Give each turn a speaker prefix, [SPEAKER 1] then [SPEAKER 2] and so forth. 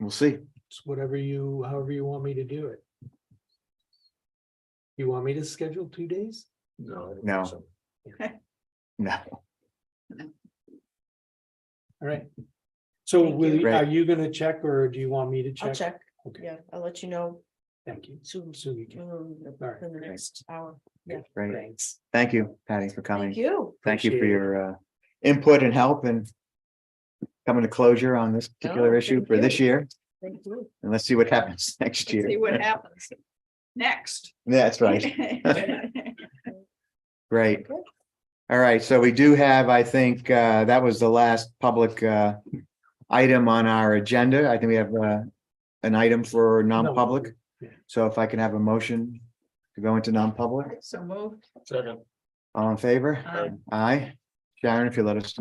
[SPEAKER 1] We'll see.
[SPEAKER 2] It's whatever you, however you want me to do it. You want me to schedule two days?
[SPEAKER 3] No.
[SPEAKER 1] No. No,
[SPEAKER 2] All right. So
[SPEAKER 4] Thank
[SPEAKER 2] will,
[SPEAKER 4] you.
[SPEAKER 2] you- are
[SPEAKER 1] Right.
[SPEAKER 2] you gonna check or do you want me to check?
[SPEAKER 4] I'll check.
[SPEAKER 2] Okay.
[SPEAKER 4] Yeah, I'll let you know
[SPEAKER 2] Thank you.
[SPEAKER 4] soon,
[SPEAKER 2] Soon you can.
[SPEAKER 4] soon,
[SPEAKER 2] right,
[SPEAKER 4] in the
[SPEAKER 1] great.
[SPEAKER 4] next hour.
[SPEAKER 1] right.
[SPEAKER 2] Thanks.
[SPEAKER 1] Thank you, Patty, for
[SPEAKER 4] Thank
[SPEAKER 1] coming.
[SPEAKER 4] you.
[SPEAKER 1] Thank you for
[SPEAKER 2] Appreciate it.
[SPEAKER 1] your uh input and help and coming to closure on this particular
[SPEAKER 4] No,
[SPEAKER 1] issue
[SPEAKER 4] thank
[SPEAKER 1] for this
[SPEAKER 4] you.
[SPEAKER 1] year.
[SPEAKER 4] Thank you.
[SPEAKER 1] And let's see what happens next
[SPEAKER 5] Let's See
[SPEAKER 1] year.
[SPEAKER 5] what happens. Next.
[SPEAKER 1] That's right. Great. All right, so we do have, I think, uh, that was the last public uh item on our agenda. I think we have uh an item for non-public. So if I can have a motion to go into non-public,
[SPEAKER 5] So moved.
[SPEAKER 3] Second.
[SPEAKER 1] all in favor?
[SPEAKER 5] Aye.
[SPEAKER 1] Aye. Sharon, if you let us know.